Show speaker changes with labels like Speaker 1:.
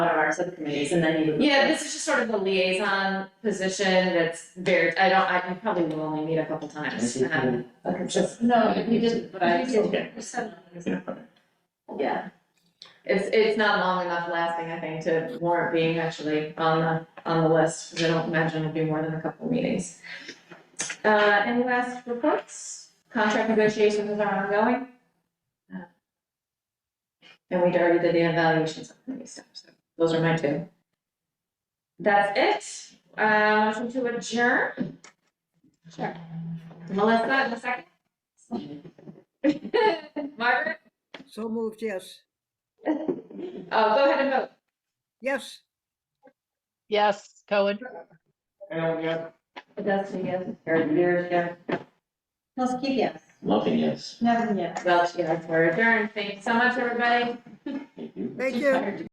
Speaker 1: our subcommittees and then you would.
Speaker 2: Yeah, this is just sort of a liaison position that's very, I don't, I you probably will only meet a couple times. um,
Speaker 1: Okay, just,
Speaker 2: No, we didn't, but I,
Speaker 1: Okay.
Speaker 3: Yeah.
Speaker 1: yeah,
Speaker 2: it's, it's not long enough lasting, I think, to warrant being actually on the, on the list. 'cause I don't imagine it'll be more than a couple meetings. Uh, any last reports? Contract negotiations are ongoing. Uh, And we already did the evaluations of the new stuff, so those are my two. That's it. Uh, motion to adjourn. Sure. Melissa, in a second. Margaret,
Speaker 4: So moved, yes.
Speaker 2: oh, go ahead and vote.
Speaker 4: Yes.
Speaker 5: Yes, Cohen.
Speaker 2: Dusty, yes.
Speaker 1: or years, yeah,
Speaker 6: Housekeeping, yes.
Speaker 3: Loving, yes.
Speaker 6: Nothing, yes.
Speaker 2: Welch, yes, we're adjourned. Thank you so much, everybody.
Speaker 3: Thank you.
Speaker 4: Thank you.